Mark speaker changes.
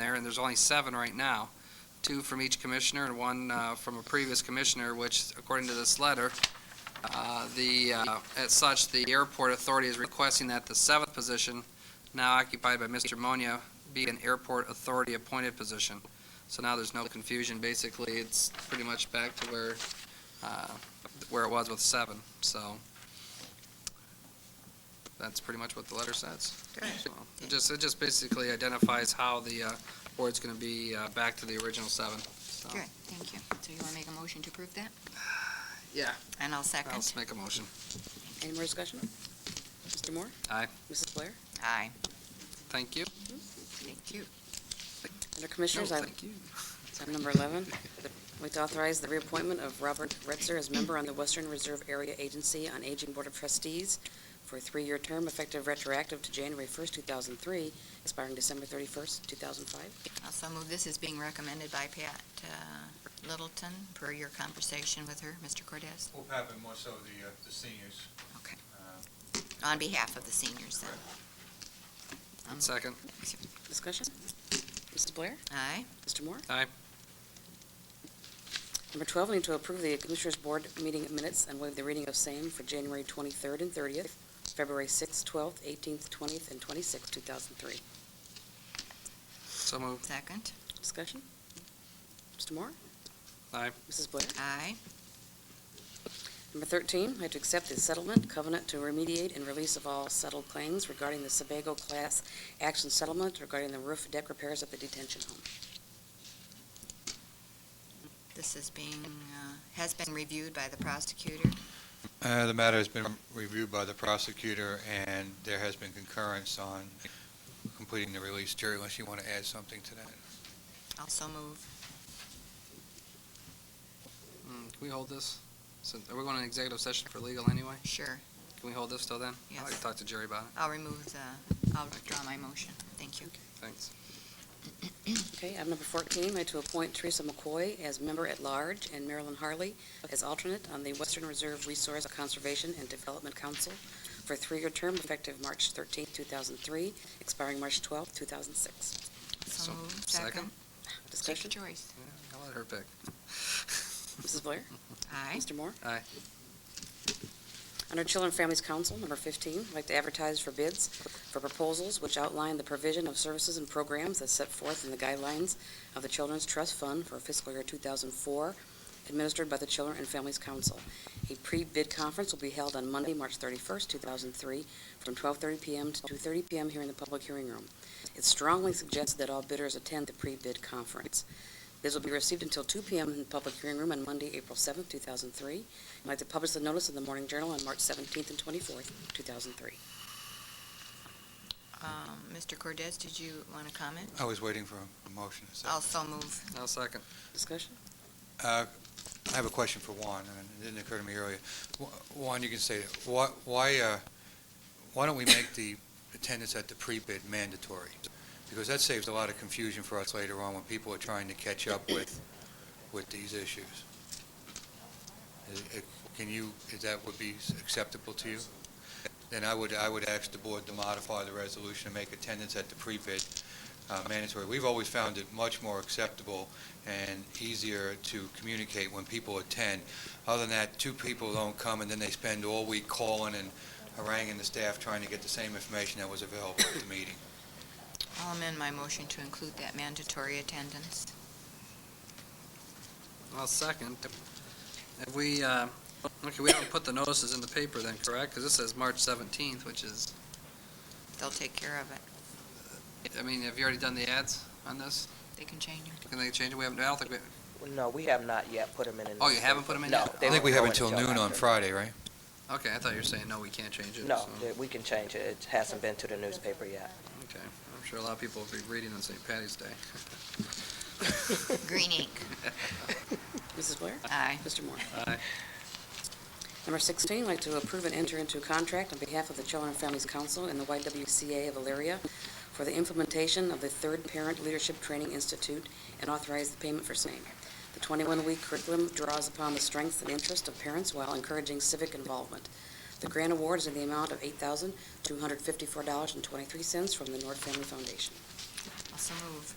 Speaker 1: and there's only seven right now. Two from each commissioner and one uh, from a previous commissioner, which according to this letter, uh, the, uh, as such, the airport authority is requesting that the seventh position, now occupied by Mr. Monia, be an airport authority appointed position. So now there's no confusion. Basically, it's pretty much back to where, uh, where it was with seven, so. That's pretty much what the letter says. So, It just, it just basically identifies how the uh, board's going to be uh, back to the original seven. So,
Speaker 2: Good, thank you. So you want to make a motion to approve that?
Speaker 1: Yeah,
Speaker 2: And I'll
Speaker 1: I'll
Speaker 2: second.
Speaker 1: make a motion.
Speaker 3: Any more discussion? Mr. Moore?
Speaker 1: Aye.
Speaker 3: Mrs. Blair?
Speaker 2: Aye.
Speaker 1: Thank you.
Speaker 2: Thank you.
Speaker 3: Under
Speaker 1: No,
Speaker 3: Commissioners, item
Speaker 1: thank you.
Speaker 3: item number 11, the- I'd like to authorize the reappointment of Robert Retzer as member on the Western Reserve Area Agency on Aging Board of Trustees for a three-year term effective retroactive to January 1st, 2003, expiring December 31st, 2005.
Speaker 2: Also move this is being recommended by Pat uh, Littleton per your conversation with her, Mr. Cortez,
Speaker 4: Will happen more so the, uh, the seniors.
Speaker 2: Okay.
Speaker 4: Uh,
Speaker 2: on behalf of the seniors then. Um,
Speaker 1: Second.
Speaker 3: Discussion? Mrs. Blair?
Speaker 2: Aye.
Speaker 3: Mr. Moore?
Speaker 1: Aye.
Speaker 3: Number 12, we need to approve the Commissioners' Board meeting minutes and waive the reading of same for January 23rd and 30th, February 6th, 12th, 18th, 20th, and 26th, 2003.
Speaker 1: So moved.
Speaker 2: Second.
Speaker 3: Discussion? Mr. Moore?
Speaker 1: Aye.
Speaker 3: Mrs. Blair?
Speaker 2: Aye.
Speaker 3: Number 13, I have to accept the settlement covenant to remediate and release of all settled claims regarding the Sebago class action settlement regarding the roof deck repairs at the detention home.
Speaker 2: This is being, uh, has been reviewed by the prosecutor.
Speaker 4: Uh, The matter has been reviewed by the prosecutor, and there has been concurrence on completing the release. Jerry, unless you want to add something to that?
Speaker 2: Also move.
Speaker 1: Mm, Can we hold this? Since- Are we going to an executive session for legal anyway?
Speaker 2: Sure.
Speaker 1: Can we hold this till then? I'd like
Speaker 2: Yes.
Speaker 1: to talk to Jerry about it.
Speaker 2: I'll remove the, I'll withdraw my motion. Thank you.
Speaker 1: Thanks.
Speaker 3: Okay, item number 14, I have to appoint Teresa McCoy as member-at-large and Marilyn Harley as alternate on the Western Reserve Resource Conservation and Development Council for a three-year term effective March 13, 2003, expiring March 12, 2006.
Speaker 2: So
Speaker 1: So-
Speaker 2: move.
Speaker 1: second.
Speaker 2: Take your
Speaker 3: Discussion?
Speaker 2: choice.
Speaker 1: Yeah, I'll let her pick.
Speaker 3: Mrs. Blair?
Speaker 2: Aye.
Speaker 3: Mr. Moore?
Speaker 1: Aye.
Speaker 3: Under Children and Families Council, number 15, I'd like to advertise for bids for proposals which outline the provision of services and programs as set forth in the guidelines of the Children's Trust Fund for fiscal year 2004, administered by the Children and Families Council. A pre-bid conference will be held on Monday, March 31st, 2003, from 12:30 PM to 2:30 PM here in the public hearing room. It's strongly suggested that all bidders attend the pre-bid conference. Bids will be received until 2 PM in the public hearing room on Monday, April 7th, 2003. I'd like to publish the notice in the Morning Journal on March 17th and 24th, 2003.
Speaker 2: Um, Mr. Cortez, did you want to comment?
Speaker 4: I was waiting for a motion. a second.
Speaker 2: Also move.
Speaker 1: I'll second.
Speaker 3: Discussion?
Speaker 4: Uh, I have a question for Juan, and it didn't occur to me earlier. Wa- Juan, you can say, it. Why- why, uh, why don't we make the attendance at the pre-bid mandatory? Because that saves a lot of confusion for us later on when people are trying to catch up with, with these issues. Is- it- Can you, is that would be acceptable to you? Then I would, I would ask the board to modify the resolution and make attendance at the pre-bid uh, mandatory. We've always found it much more acceptable and easier to communicate when people attend. Other than that, two people don't come, and then they spend all week calling and haranguing the staff trying to get the same information that was available at the meeting.
Speaker 2: I'll amend my motion to include that mandatory attendance.
Speaker 1: I'll second. If we, uh, okay, we haven't put the notices in the paper then, correct? Because this says March 17th, which is,
Speaker 2: They'll take care of it.
Speaker 1: I mean, have you already done the ads on this?
Speaker 2: They can change it.
Speaker 1: Can they change it? We haven't, I don't think we,
Speaker 5: Well, No, we have not yet put them in.
Speaker 1: Oh, you haven't put 'em in
Speaker 5: No.
Speaker 1: yet?
Speaker 5: they
Speaker 1: I
Speaker 4: I think we
Speaker 5: won't
Speaker 4: have
Speaker 5: go in
Speaker 4: until noon on
Speaker 5: after.
Speaker 4: Friday, right?
Speaker 1: okay, I thought you were saying, no, we can't change it.
Speaker 5: No,
Speaker 1: so-
Speaker 5: that we can change it. It hasn't been to the newspaper yet.
Speaker 1: Okay, I'm sure a lot of people will be reading on St. Patty's Day.
Speaker 2: Green ink.
Speaker 3: Mrs. Blair?
Speaker 2: Aye.
Speaker 3: Mr. Moore?
Speaker 1: Aye.
Speaker 3: Number 16, I'd like to approve and enter into a contract on behalf of the Children and Families Council and the YWCA of Elyria for the implementation of the Third Parent Leadership Training Institute and authorize the payment for same. The 21-week curriculum draws upon the strengths and interests of parents while encouraging civic involvement. The grant award is in the amount of $8,254.23 from the North Family Foundation.
Speaker 2: Also move.